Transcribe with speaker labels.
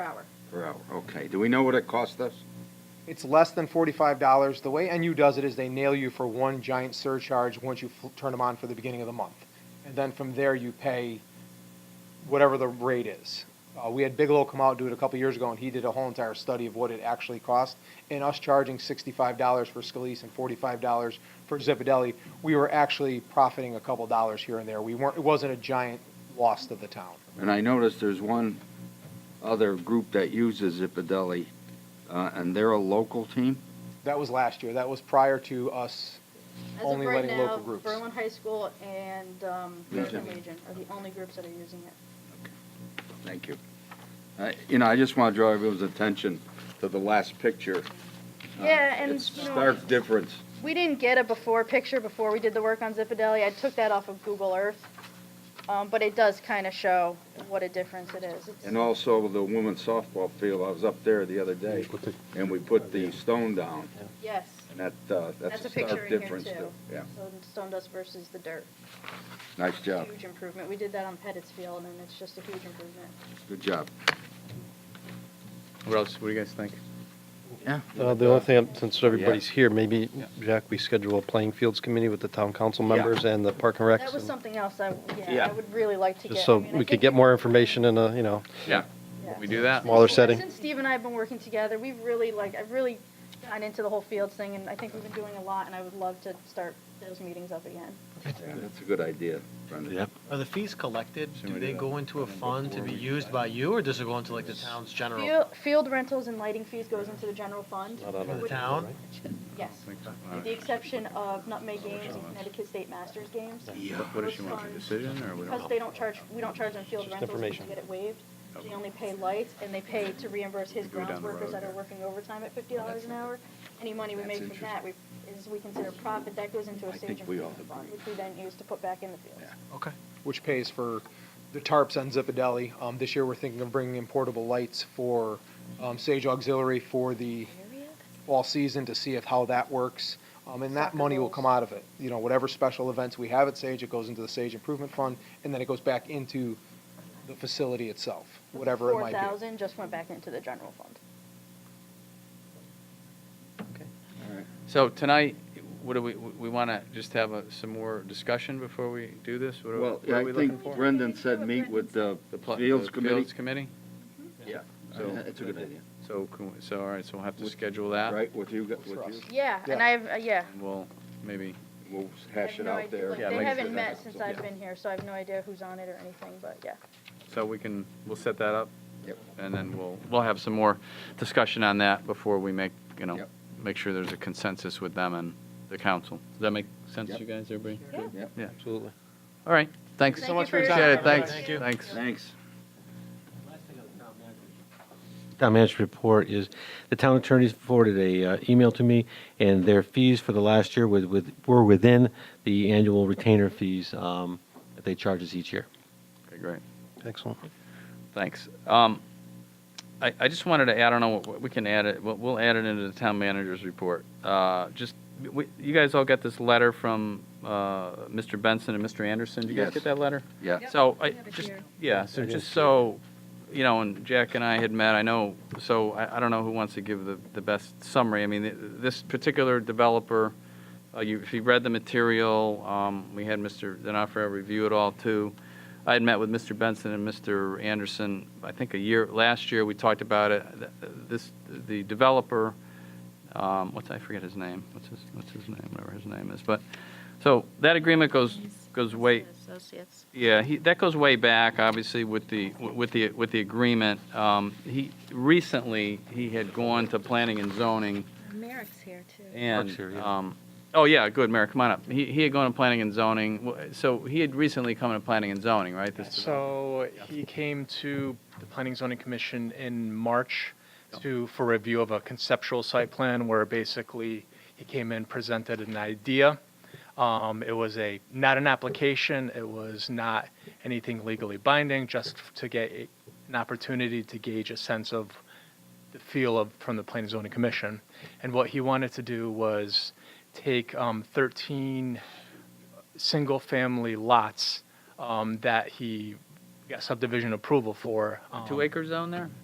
Speaker 1: hour.
Speaker 2: Per hour, okay. Do we know what it cost us?
Speaker 3: It's less than forty-five dollars. The way NU does it is they nail you for one giant surcharge once you fl- turn them on for the beginning of the month, and then from there you pay whatever the rate is. Uh, we had Bigelow come out do it a couple years ago, and he did a whole entire study of what it actually cost. And us charging sixty-five dollars for Scalise and forty-five dollars for Zipadelli, we were actually profiting a couple dollars here and there. We weren't. It wasn't a giant loss to the town.
Speaker 2: And I noticed there's one other group that uses Zipadelli, uh, and they're a local team?
Speaker 3: That was last year. That was prior to us.
Speaker 1: As
Speaker 3: Only
Speaker 1: of right
Speaker 3: letting
Speaker 1: now,
Speaker 3: local groups.
Speaker 1: Berlin High School and um,
Speaker 2: Legion.
Speaker 1: Legion are the only groups that are using it.
Speaker 2: Thank you. I- You know, I just want to draw everyone's attention to the last picture. Uh,
Speaker 1: Yeah, and,
Speaker 2: It's
Speaker 1: you know-
Speaker 2: stark difference.
Speaker 1: We didn't get a before picture before we did the work on Zipadelli. I took that off of Google Earth, um, but it does kind of show what a difference it is. It's-
Speaker 2: And also the women's softball field, I was up there the other day, and we put the stone down,
Speaker 1: yes,
Speaker 2: and that, uh,
Speaker 1: that's
Speaker 2: that's
Speaker 1: a
Speaker 2: a
Speaker 1: picture
Speaker 2: stark
Speaker 1: in here
Speaker 2: difference.
Speaker 1: too.
Speaker 2: too. Yeah,
Speaker 1: So the stone dust versus the dirt,
Speaker 2: nice job,
Speaker 1: huge improvement. We did that on Pettit's Field, and it's just a huge improvement.
Speaker 2: good job.
Speaker 4: What else, what do you guys think?
Speaker 5: Uh, The only thing, since everybody's here, maybe, Jack, we schedule a playing fields committee with the town council members and the park and recs.
Speaker 1: That was
Speaker 5: and
Speaker 1: something else I, yeah,
Speaker 2: Yeah.
Speaker 1: I would really like to get.
Speaker 5: Just
Speaker 1: I
Speaker 5: so
Speaker 1: mean, I
Speaker 5: we could
Speaker 1: think
Speaker 5: get more information and, uh, you know,
Speaker 4: Yeah,
Speaker 1: Yeah.
Speaker 4: we do that.
Speaker 5: smaller setting.
Speaker 1: Since Steve and I have been working together, we've really like, I've really gotten into the whole fields thing, and I think we've been doing a lot, and I would love to start those meetings up again.
Speaker 2: Yeah, That's a good idea, Brendan.
Speaker 6: Yep. Are the fees collected?
Speaker 4: we
Speaker 6: Do
Speaker 4: do
Speaker 6: they
Speaker 4: that?
Speaker 6: go into a fund to be used by you, or does it go into like the town's general?
Speaker 1: Field, field rentals and lighting fees goes into the general fund.
Speaker 5: Not out of
Speaker 6: The
Speaker 1: which-
Speaker 6: town?
Speaker 1: Yes, with the exception of Nutmeg Games and Connecticut State Masters Games.
Speaker 4: What- What does she want, a decision, or we
Speaker 1: Because
Speaker 4: don't?
Speaker 1: they don't charge, we don't charge them field
Speaker 5: Just
Speaker 1: rentals, we can
Speaker 5: information.
Speaker 1: get it waived. They only pay lights, and they pay to reimburse his
Speaker 4: Go down
Speaker 1: grounds
Speaker 4: the
Speaker 1: workers
Speaker 4: road, Oh,
Speaker 1: that are
Speaker 4: yeah.
Speaker 1: working overtime at fifty dollars an hour. Any money we
Speaker 2: That's
Speaker 1: make from
Speaker 2: interesting.
Speaker 1: that, we, is we consider profit, that goes into
Speaker 2: I
Speaker 1: a
Speaker 2: think
Speaker 1: stage
Speaker 2: we all
Speaker 1: improvement fund,
Speaker 2: agree.
Speaker 1: which we then use to put back in the fields.
Speaker 6: Okay.
Speaker 3: which pays for the tarps on Zipadelli. Um, this year, we're thinking of bringing in portable lights for um, Sage Auxiliary for the fall season to see if how that works. Um, and that
Speaker 1: Soccer
Speaker 3: money will
Speaker 1: goals.
Speaker 3: come out of it. You know, whatever special events we have at Sage, it goes into the Sage Improvement Fund, and then it goes back into the facility itself, whatever it might be.
Speaker 1: Four thousand just went back into the general fund.
Speaker 4: So tonight, what do we, we want to just have a- some more discussion before we do this? What are-
Speaker 2: Well,
Speaker 4: what are
Speaker 2: I
Speaker 4: we looking
Speaker 2: think
Speaker 4: for?
Speaker 2: Brendan said meet with the
Speaker 4: The pl- the
Speaker 2: Fields Committee.
Speaker 4: Fields Committee?
Speaker 2: Yeah,
Speaker 4: So-
Speaker 2: that's a good idea,
Speaker 4: So, can we- so, all right, so we'll have to schedule that.
Speaker 2: right, with you, with
Speaker 3: For
Speaker 2: you,
Speaker 3: us.
Speaker 1: Yeah, and
Speaker 3: Yeah.
Speaker 1: I've, uh, yeah.
Speaker 4: And we'll maybe,
Speaker 2: we'll
Speaker 1: I
Speaker 2: hash
Speaker 1: have
Speaker 2: it
Speaker 1: no
Speaker 2: out
Speaker 1: idea,
Speaker 2: there.
Speaker 1: like,
Speaker 4: Yeah,
Speaker 1: They
Speaker 4: make sure
Speaker 1: haven't
Speaker 4: that
Speaker 1: met
Speaker 4: happens.
Speaker 1: since I've
Speaker 4: Yeah.
Speaker 1: been here, so I have no idea who's on it or anything, but yeah.
Speaker 4: so we can, we'll set that up.
Speaker 2: Yep.
Speaker 4: And then we'll, we'll have some more discussion on that before we make, you know,
Speaker 2: Yep.
Speaker 4: make sure there's a consensus with them and the council. Does that make sense to
Speaker 2: Yep.
Speaker 4: you guys, everybody?
Speaker 1: Yeah.
Speaker 5: Absolutely.
Speaker 4: All right, thanks.
Speaker 1: Thank you for your
Speaker 4: Appreciate
Speaker 1: time.
Speaker 4: it, thanks,
Speaker 1: Thank you.
Speaker 4: thanks.
Speaker 2: Thanks.
Speaker 7: Town manager report is, the town attorneys forwarded a uh, email to me, and their fees for the last year with, with, were within the annual retainer fees, um, that they charge us each year.
Speaker 4: Okay, great.
Speaker 5: Excellent.
Speaker 4: Thanks. Um, I, I just wanted to add, I don't know, what- we can add it, we'll, we'll add it into the town manager's report. Uh, just, we, you guys all got this letter from, uh, Mr. Benson and Mr. Anderson. Did you guys
Speaker 2: Yes.
Speaker 4: get that letter?
Speaker 2: Yeah.
Speaker 4: So I, just, yeah, so just so, you know, and Jack and I had met, I know, so I, I don't know who wants to give the, the best summary. I mean, th- this particular developer, uh, you, if you read the material, um, we had Mr. D'Onofrio review it all too. I had met with Mr. Benson and Mr. Anderson, I think a year, last year, we talked about it. Th- This, the developer, um, what's, I forget his name, what's his, what's his name, whatever his name is, but, so that agreement goes, goes way,
Speaker 1: Associates.
Speaker 4: yeah, he, that goes way back, obviously, with the, with the, with the agreement. Um, he, recently, he had gone to planning and zoning
Speaker 8: Merrick's here too.
Speaker 4: and,
Speaker 7: Parks here, yeah.
Speaker 4: um, oh, yeah, good, Mayor, come on up. He, he had gone to planning and zoning, W- so he had recently come to planning and zoning, right? this development?
Speaker 9: So he came to the Planning and Zoning Commission in March to, for review of a conceptual site plan where basically he came in, presented an idea. Um, it was a, not an application, it was not anything legally binding, just to get a- an opportunity to gauge a sense of the feel of, from the Planning and Zoning Commission. And what he wanted to do was take, um, thirteen single-family lots um, that he got subdivision approval for. um,
Speaker 4: Two acre zone there?